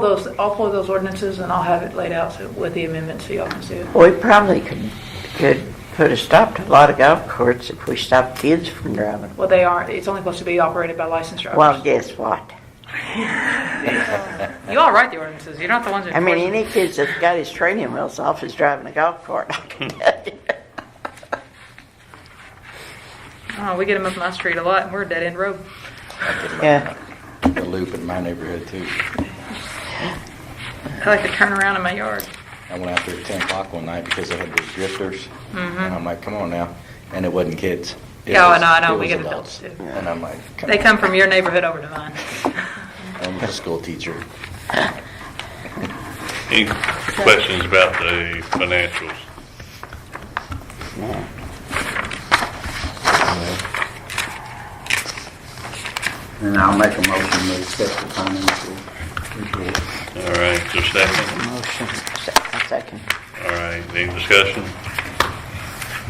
those, I'll pull those ordinances and I'll have it laid out so- with the amendments so y'all can see it. We probably could, could put a stop to a lot of golf courses if we stopped kids from driving. Well, they aren't, it's only supposed to be operated by licensed Well, drivers. guess what? You all write the ordinances, you're not the ones that. I mean, enforce any kids that's got his training wheels off is driving a golf cart, I can tell you. them. Oh, we get them up my street a lot and we're a dead end road. Yeah, a loop in my neighborhood too. I like to turn around in my yard. I went out there at 10 o'clock one night because they had those drifters. Mm-hmm. And I'm like, come on now. And it wasn't kids. It Yeah, I was- know, Oh, I know. it We was get adults, too. And I'm like, They come come from your neighborhood over to mine. on, I'm a school teacher. Any questions about the financials? And I'll make a motion to accept the financial report. All right, just a second. motion, se- second. All right, any discussion?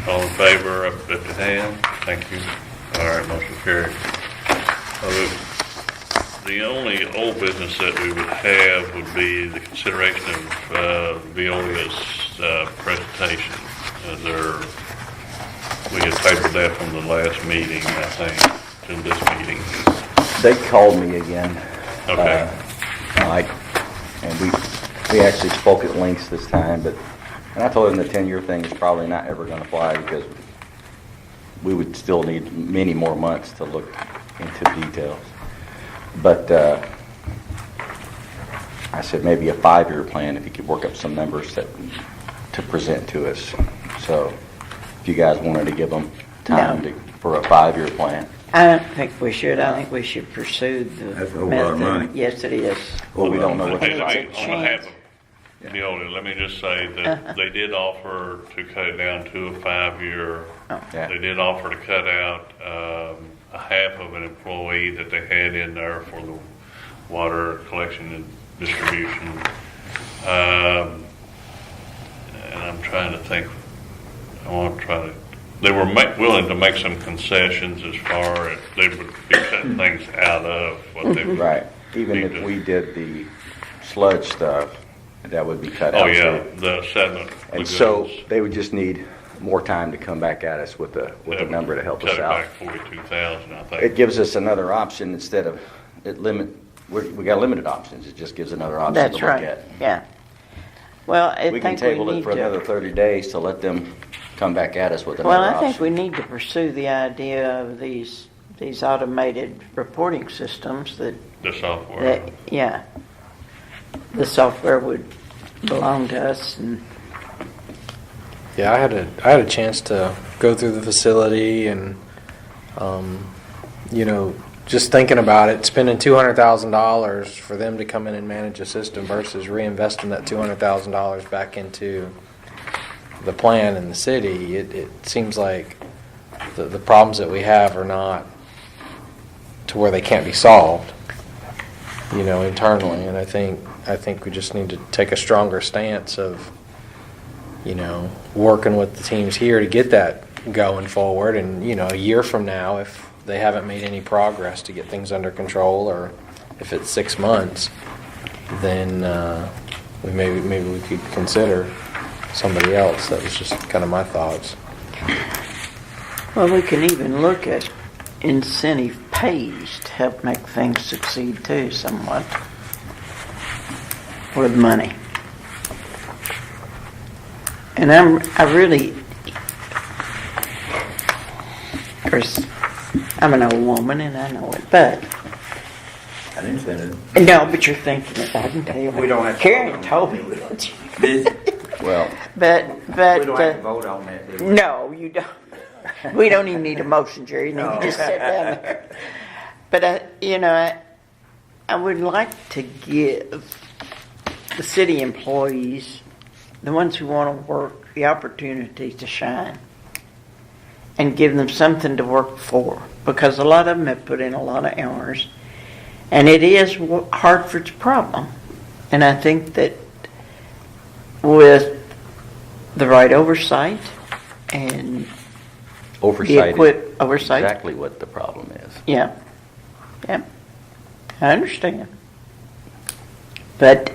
All in favor, up lift your hand. Thank you. All right, motion carried. Uh, The only old business that we would have would be the consideration of uh, Veolia's uh, presentation. Uh, There, we had tabled that from the last meeting, I think, to this meeting. They called me again. Okay. uh, Mike, and we, we actually spoke at length this time, but, and I told him the ten-year thing is probably not ever gonna fly because we would still need many more months to look into details. But, uh, I said maybe a five-year plan if you could work up some numbers that, to present to us. So if you guys wanted to give them time No. to, for a five-year plan. I don't think we should, I think we should pursue the method. That's a whole lot of money. Yes, it is. Well, we don't know what. Hey, the let me- budget on behalf changed. of Neola, let me just say that they did offer to cut it down to a five-year. Yeah. They did offer to cut out um, a half of an employee that they had in there for the water collection and distribution. Um, And I'm trying to think, I want to try to, they were ma- willing to make some concessions as far as they would be cutting things out of what they. Right, even if we did the sludge stuff, that would be cut out. Oh, yeah, too. the sediment. And so lagoons. they would just need more time to come back at us with a, with a number to help us out. Cut it back forty-two thousand, I It think. gives us another option instead of, it limit, we're- we got limited options, it just gives another option to That's look right, at. yeah. Well, I We think we can need table it for to- another 30 days to let them come back at us with Well, another I think we option. need to pursue the idea of these, these automated reporting systems that, The software, that, yeah. The software would belong to us and, Yeah, I had a I had a chance to go through the facility and, um, you know, just thinking about it, spending two hundred thousand dollars for them to come in and manage a system versus reinvesting that two hundred thousand dollars back into the plan and the city. It, it seems like the, the problems that we have are not to where they can't be solved, you know, internally. And I think I think we just need to take a stronger stance of you know, working with the teams here to get that going forward. And, you know, a year from now, if they haven't made any progress to get things under control, or if it's six months, then uh, we maybe, maybe we could consider somebody else. That was just kind of my thoughts. well, we can even look at incentive pays to help make things succeed too somewhat. With money. And I'm, I really, of course, I'm an old woman and I know it, but I didn't say that. No, but you're thinking it. I can tell you. We don't have to Karen vote told on me. it. that you- Well, But, We but, don't have to uh, vote on that, do we? no, you don't. We don't even need a motion, Jerry. You can just sit down there. But, I- you know, I, I would like to give the city employees, the ones who want to work, the opportunity to shine and give them something to work for because a lot of them have put in a lot of hours. And it is Wa- Hartford's problem. And I think that with the right oversight and the oversight is equip, oversight, exactly what the problem is. yeah, yeah, I understand. But